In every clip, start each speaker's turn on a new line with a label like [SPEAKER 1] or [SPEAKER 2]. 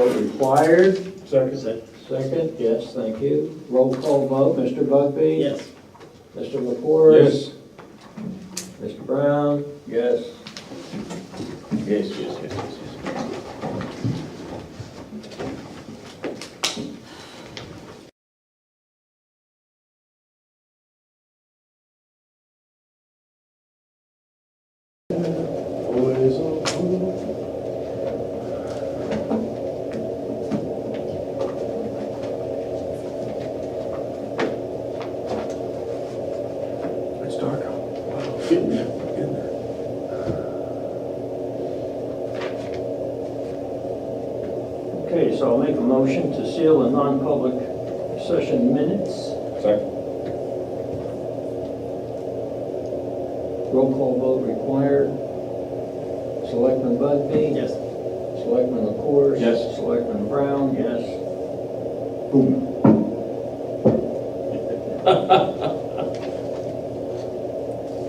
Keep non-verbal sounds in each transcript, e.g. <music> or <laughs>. [SPEAKER 1] as required.
[SPEAKER 2] Second.
[SPEAKER 1] Second, yes, thank you. Roll call vote, Mr. Bugby?
[SPEAKER 2] Yes.
[SPEAKER 1] Mr. LaFors? Mr. Brown?
[SPEAKER 2] Yes. Yes, yes, yes, yes, yes.
[SPEAKER 3] It's dark out. Wow.
[SPEAKER 2] Getting there.
[SPEAKER 3] Getting there.
[SPEAKER 1] Okay, so I'll make a motion to seal the non-public session minutes.
[SPEAKER 2] Second.
[SPEAKER 1] Roll call vote required. Selectman Bugby?
[SPEAKER 2] Yes.
[SPEAKER 1] Selectman LaFors?
[SPEAKER 2] Yes.
[SPEAKER 1] Selectman Brown? Yes.
[SPEAKER 2] Boom.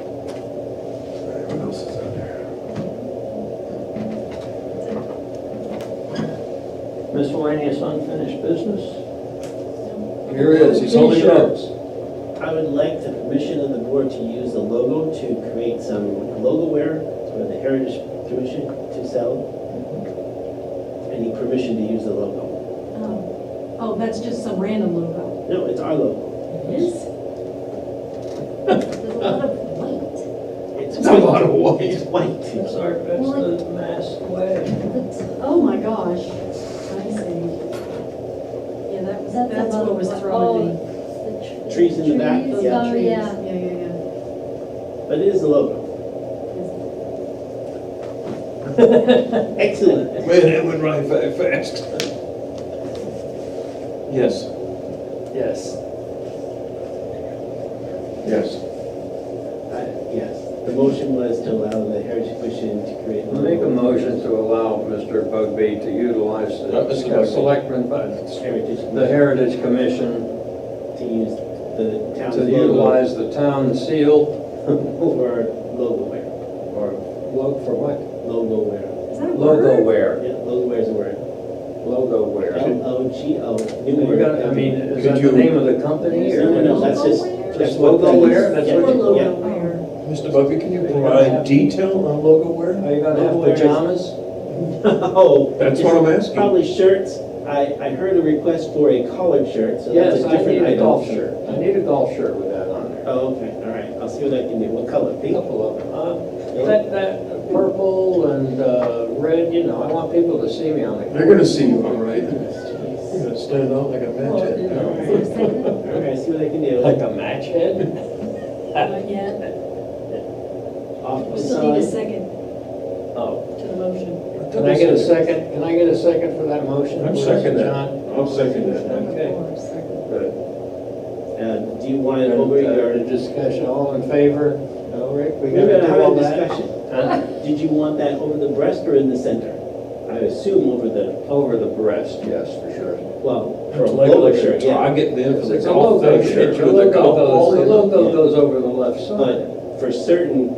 [SPEAKER 3] All right, What else is out there?
[SPEAKER 1] Miscellaneous unfinished business?
[SPEAKER 3] Here he is, he's holding it up.
[SPEAKER 4] I would like the permission of the board to use the logo to create some logoware for the Heritage Commission to sell.
[SPEAKER 3] Mm-hmm.
[SPEAKER 4] I need permission to use the logo.
[SPEAKER 5] Oh, Oh, that's just some random logo.
[SPEAKER 4] No, it's our logo.
[SPEAKER 5] Yes. There's a lot of white.
[SPEAKER 4] It's
[SPEAKER 3] It's a lot of
[SPEAKER 4] It's
[SPEAKER 3] white.
[SPEAKER 4] white.
[SPEAKER 1] It's our, that's the mass way.
[SPEAKER 5] That's- Oh, my gosh. I see. Yeah, that was,
[SPEAKER 6] That's a
[SPEAKER 5] that's
[SPEAKER 6] lot
[SPEAKER 5] what
[SPEAKER 6] of
[SPEAKER 5] was
[SPEAKER 6] white.
[SPEAKER 5] throwing me. Oh,
[SPEAKER 6] The tr-
[SPEAKER 4] Trees in the back,
[SPEAKER 6] trees,
[SPEAKER 4] yeah.
[SPEAKER 6] Oh, yeah.
[SPEAKER 5] Yeah, yeah, yeah.
[SPEAKER 4] But it is the logo. <laughs> Excellent.
[SPEAKER 3] Man, it went right fa- fast. Yes.
[SPEAKER 4] Yes.
[SPEAKER 3] Yes.
[SPEAKER 4] I- Uh, Yes. The motion was to allow the Heritage Commission to create. a
[SPEAKER 1] Make a
[SPEAKER 4] logo.
[SPEAKER 1] motion to allow Mr. Bugby to utilize
[SPEAKER 3] Uh, Mr.
[SPEAKER 1] the
[SPEAKER 3] Bugby.
[SPEAKER 1] selectmen, but
[SPEAKER 4] Heritage,
[SPEAKER 1] the Heritage Commission
[SPEAKER 4] to use the town's
[SPEAKER 1] to
[SPEAKER 4] logo
[SPEAKER 1] utilize the town seal
[SPEAKER 4] <laughs> for logoware.
[SPEAKER 1] or logo for what?
[SPEAKER 4] Logoware.
[SPEAKER 5] Is that a
[SPEAKER 1] Logo
[SPEAKER 5] word?
[SPEAKER 1] wear,
[SPEAKER 4] Yeah, logoware is a word.
[SPEAKER 1] logo wear.
[SPEAKER 4] L O G O. New
[SPEAKER 1] You
[SPEAKER 4] word.
[SPEAKER 1] got, I mean, is
[SPEAKER 3] Could
[SPEAKER 1] that
[SPEAKER 3] you-
[SPEAKER 1] the name of the company
[SPEAKER 4] No, no,
[SPEAKER 1] or?
[SPEAKER 4] no, that's just.
[SPEAKER 6] Logoware?
[SPEAKER 4] that's
[SPEAKER 1] Just
[SPEAKER 4] what that is.
[SPEAKER 1] logoware? That's
[SPEAKER 4] Yeah,
[SPEAKER 5] Or
[SPEAKER 1] what you-
[SPEAKER 4] yeah.
[SPEAKER 5] logo wear.
[SPEAKER 3] Mr. Bugby, can you provide detail on logo wear?
[SPEAKER 1] Are you gonna have
[SPEAKER 4] Logo wear is-
[SPEAKER 1] pajamas?
[SPEAKER 4] <laughs> No.
[SPEAKER 3] That's what I'm
[SPEAKER 4] Oh. It's
[SPEAKER 3] asking.
[SPEAKER 4] Probably shirts. I, I heard a request for a collared shirt, so that's a
[SPEAKER 1] Yes, I
[SPEAKER 4] different item.
[SPEAKER 1] need a golf shirt. I need a golf shirt with that on there.
[SPEAKER 4] Oh, okay, all right. I'll see what I can do. What color?
[SPEAKER 1] A
[SPEAKER 4] Pink?
[SPEAKER 1] Couple of them. Uh, That, that purple and uh, red, you know, I want people to see me on it.
[SPEAKER 3] They're gonna see you, all right? You're gonna stand out like a
[SPEAKER 1] Well,
[SPEAKER 3] match.
[SPEAKER 1] you know,
[SPEAKER 4] All right, see what I can do.
[SPEAKER 1] Like a match head?
[SPEAKER 6] Not
[SPEAKER 1] <laughs>
[SPEAKER 6] yet.
[SPEAKER 4] Off
[SPEAKER 6] We
[SPEAKER 4] the
[SPEAKER 6] still need a
[SPEAKER 4] side.
[SPEAKER 6] second
[SPEAKER 1] Oh,
[SPEAKER 6] to the motion.
[SPEAKER 1] can I get a second? Can I get a second for that motion?
[SPEAKER 3] I'm second that.
[SPEAKER 1] John?
[SPEAKER 3] I'll second
[SPEAKER 1] Okay. Good.
[SPEAKER 4] Uh, do you want it over
[SPEAKER 1] The
[SPEAKER 4] your?
[SPEAKER 1] discussion, all in favor? No, Rick, we
[SPEAKER 4] We're
[SPEAKER 1] gotta
[SPEAKER 4] gonna
[SPEAKER 1] do all
[SPEAKER 4] have a
[SPEAKER 1] that?
[SPEAKER 4] discussion.
[SPEAKER 1] Huh?
[SPEAKER 4] Did you want that over the breast or in the center? I assume over the,
[SPEAKER 1] Over the breast, yes, for sure.
[SPEAKER 4] well, for a logo
[SPEAKER 3] Like
[SPEAKER 4] shirt,
[SPEAKER 3] a
[SPEAKER 4] yeah.
[SPEAKER 3] target then for the
[SPEAKER 1] It's a
[SPEAKER 3] golf
[SPEAKER 1] logo
[SPEAKER 3] thing,
[SPEAKER 1] shirt.
[SPEAKER 3] hit
[SPEAKER 1] The
[SPEAKER 3] you with the golf
[SPEAKER 1] logo
[SPEAKER 3] ball.
[SPEAKER 1] goes, the
[SPEAKER 3] in it.
[SPEAKER 1] logo goes over the left side.
[SPEAKER 4] But for certain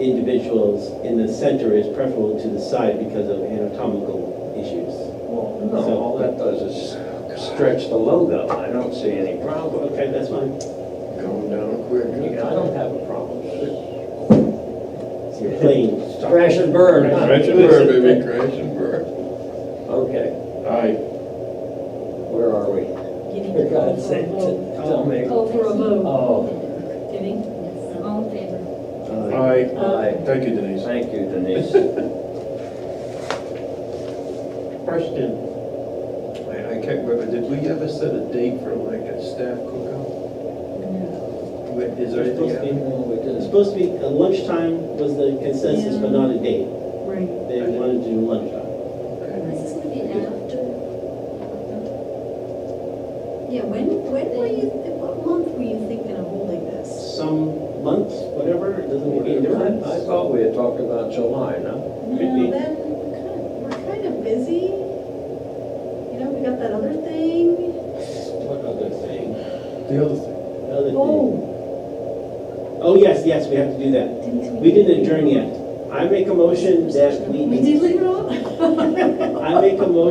[SPEAKER 4] individuals, in the center is preferable to the side because of anatomical issues.
[SPEAKER 1] Well, No, all that does is stretch the logo. I don't see any problem.
[SPEAKER 4] Okay, that's fine.
[SPEAKER 3] Going down quick.
[SPEAKER 1] I don't have a problem.
[SPEAKER 4] So you're playing.
[SPEAKER 1] Crash and burn, huh?
[SPEAKER 3] Crash and burn, baby, crash and burn.
[SPEAKER 1] Okay,
[SPEAKER 3] Aye.
[SPEAKER 1] where are we?
[SPEAKER 6] Getting
[SPEAKER 1] For <laughs> God's sake, t- tell me.
[SPEAKER 6] Call for a vote.
[SPEAKER 1] Oh,
[SPEAKER 6] Getting?
[SPEAKER 5] All in favor?
[SPEAKER 4] Uh,
[SPEAKER 3] Aye.
[SPEAKER 1] aye.
[SPEAKER 3] Thank you, Denise.
[SPEAKER 1] Thank you, Denise. Question.
[SPEAKER 3] I I can't remember, did we ever set a date for like a staff cookout? Wait, Is there
[SPEAKER 4] Supposed to
[SPEAKER 3] anything?
[SPEAKER 4] be-
[SPEAKER 1] We
[SPEAKER 4] It's
[SPEAKER 1] did,
[SPEAKER 4] supposed to be, uh, lunchtime was the consensus, but not a date.
[SPEAKER 5] Right.
[SPEAKER 4] They wanted to do lunchtime.
[SPEAKER 3] Okay.
[SPEAKER 6] Is this gonna be after? Yeah, when, when were you, what month were you thinking of holding this?
[SPEAKER 4] Some months, whatever, it doesn't make any difference.
[SPEAKER 1] I thought we had talked about July, no?
[SPEAKER 4] Could be.
[SPEAKER 6] No, then, we're kind of, we're kind of busy. You know, we got that other thing.
[SPEAKER 4] What other thing?
[SPEAKER 3] The other thing,
[SPEAKER 4] Other thing.
[SPEAKER 6] Oh,
[SPEAKER 4] Oh, yes, yes, we have to do that.
[SPEAKER 6] didn't we?
[SPEAKER 4] We didn't adjourn yet. I make a motion that we.
[SPEAKER 6] We did leave it
[SPEAKER 4] <laughs>
[SPEAKER 6] off? <laughs>
[SPEAKER 4] I make a motion